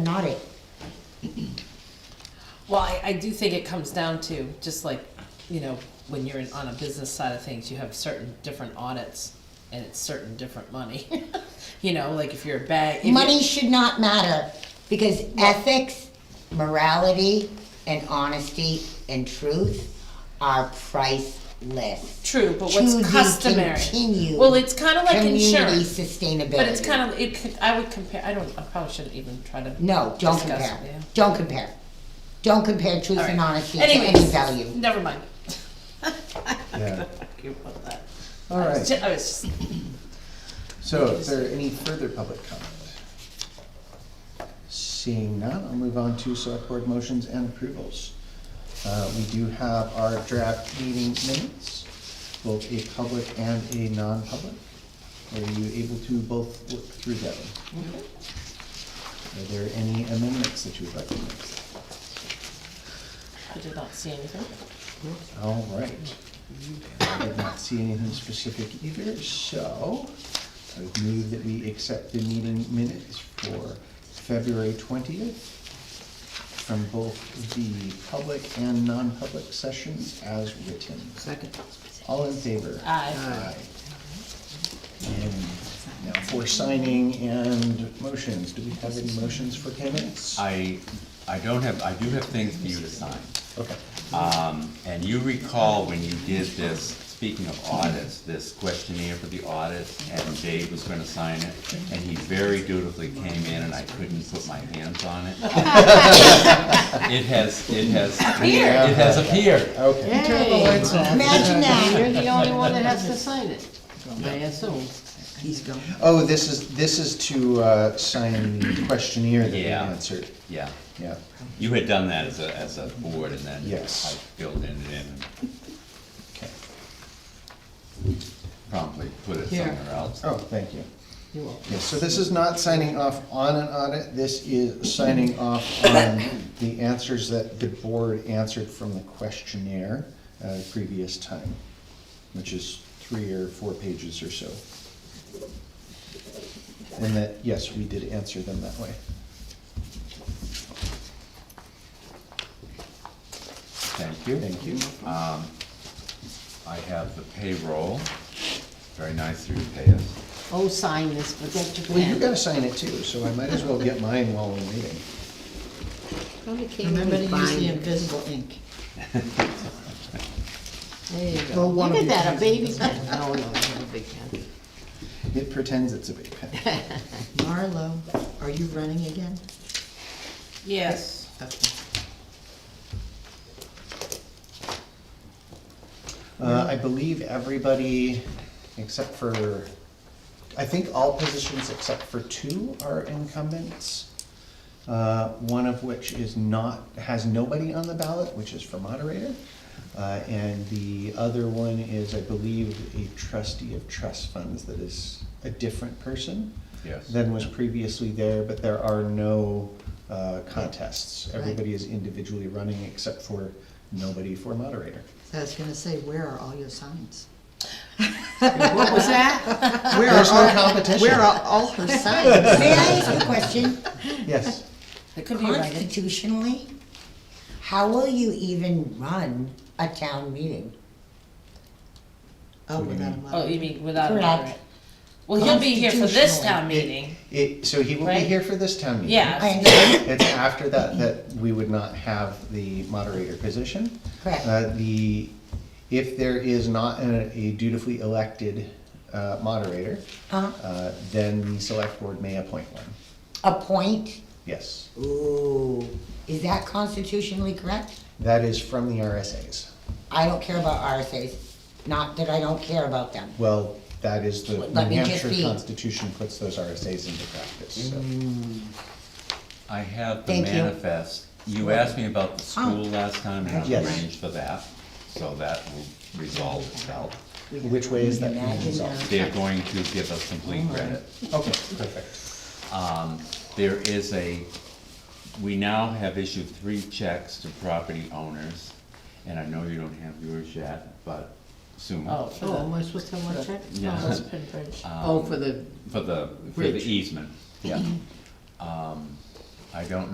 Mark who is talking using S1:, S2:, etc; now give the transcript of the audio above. S1: an audit.
S2: Well, I, I do think it comes down to, just like, you know, when you're in, on a business side of things, you have certain different audits and it's certain different money. You know, like if you're a bank. if you're-
S1: Money should not matter because ethics, morality, and honesty and truth are priceless.
S2: True, but
S1: To the
S2: what's customary?
S1: continued
S2: Well, it's kind of like
S1: Community
S2: insurance,
S1: sustainability.
S2: but it's kind of, it could, I would compare, I don't, I probably shouldn't even try to.
S1: No, don't
S2: discuss
S1: compare.
S2: it, yeah.
S1: Don't compare. Don't compare truth
S2: All right.
S1: and honesty
S2: Anyways,
S1: to any value.
S2: Never mind.
S3: Yeah.
S2: Argue about that.
S3: All
S2: I was
S3: right,
S2: ju- I was just,
S3: so is there any further public comment? Seeing none, I'll move on to select board motions and approvals. Uh, we do have our draft meeting minutes, both a public and a non-public. Are you able to both look through that one? Are there any amendments that you would like to make?
S2: I did not see anything.
S3: All right. I did not see anything specific either, so I would move that we accept the meeting minutes for February twentieth from both the public and non-public sessions as written.
S4: Second.
S3: All in favor?
S2: Aye.
S3: Aye. And now for signing and motions, do we have any motions for payments?
S5: I, I don't have, I do have things for you to sign.
S3: Okay,
S5: And you recall when you did this, speaking of audits, this questionnaire for the audit, and Dave was gonna sign it, and he very dutifully came in and I couldn't put my hands on it. It has, it has.
S2: Appeared.
S5: It has appeared.
S3: okay.
S1: Imagine that.
S4: You're the only one that has to sign it, I assume.
S1: He's gone.
S3: Oh, this is, this is to, uh, sign the questionnaire that we
S5: Yeah.
S3: answered.
S5: Yeah,
S3: Yeah,
S5: you had done that as a, as a board and then
S3: Yes.
S5: I filled in it in and
S3: okay.
S5: promptly put it
S4: Here.
S5: somewhere else.
S3: Oh, thank you.
S4: You won't.
S3: Yes, so this is not signing off on an audit, this is signing off on the answers that the board answered from the questionnaire, uh, previous time, which is three or four pages or so. And that, yes, we did answer them that way.
S5: Thank you.
S3: Thank you.
S5: I have the payroll, very nice of you to pay us.
S4: Oh, sign this, but that's your
S3: Well, you
S4: pen.
S3: gotta sign it too, so I might as well get mine while we're waiting.
S4: Probably came in
S6: Remember to use
S4: fine.
S6: the invisible ink.
S4: There you go.
S6: Well,
S4: Look
S6: one of
S4: at
S6: you
S4: that,
S6: can
S4: a baby pen. No, no, not a big pen.
S3: It pretends it's a big pen.
S6: Marlo, are you running again?
S2: Yes.
S3: Uh, I believe everybody except for, I think all positions except for two are incumbents. Uh, one of which is not, has nobody on the ballot, which is for moderator. Uh, and the other one is, I believe, a trustee of trust funds that is a different person.
S5: Yes.
S3: Than was previously there, but there are no, uh, contests. Everybody is individually running except for nobody for moderator.
S6: So I was gonna say, where are all your signs?
S4: What was that?
S6: Where
S3: There's no
S6: are, all-
S3: competition.
S6: where are all her signs?
S1: May I ask a question?
S3: Yes.
S2: It could be right.
S1: Constitutionally, how will you even run a town meeting?
S6: Oh, without a
S2: Oh, you
S6: moderator.
S2: mean without a
S1: Correct.
S2: moderate? Well, he'll be here for this town meeting.
S3: It, so he will be
S2: Right?
S3: here for this town meeting.
S1: I
S2: Yeah,
S1: understand.
S3: It's after that that we would not have the moderator position.
S1: Correct.
S3: Uh, the, if there is not a a dutifully elected uh, moderator,
S1: Uh,
S3: uh, then the select board may appoint one.
S1: Appoint,
S3: Yes,
S1: ooh, is that constitutionally correct?
S3: that is from the RSAs.
S1: I don't care about RSAs, not that I don't care about them.
S3: Well, that is the
S1: Let me
S3: New
S1: just
S3: Hampshire
S1: be- Mm.
S3: Constitution puts those RSAs into practice, so.
S5: I have the
S1: Thank you.
S5: manifest. You asked me about the school last time, and I
S3: Yes.
S5: arranged for that, so that will resolve itself.
S3: Which way is that being
S1: Imagine
S3: resolved?
S1: that.
S5: They're going to give us complete credit.
S3: Okay, perfect.
S5: There is a, we now have issued three checks to property owners, and I know you don't have yours yet, but soon.
S2: Oh, for
S4: Oh,
S2: the, Um,
S4: am I supposed to have one check?
S5: Yeah.
S2: for the pin bridge.
S4: Oh, for the,
S5: For the, for the
S4: Bridge.
S5: easement, yeah. Um, I don't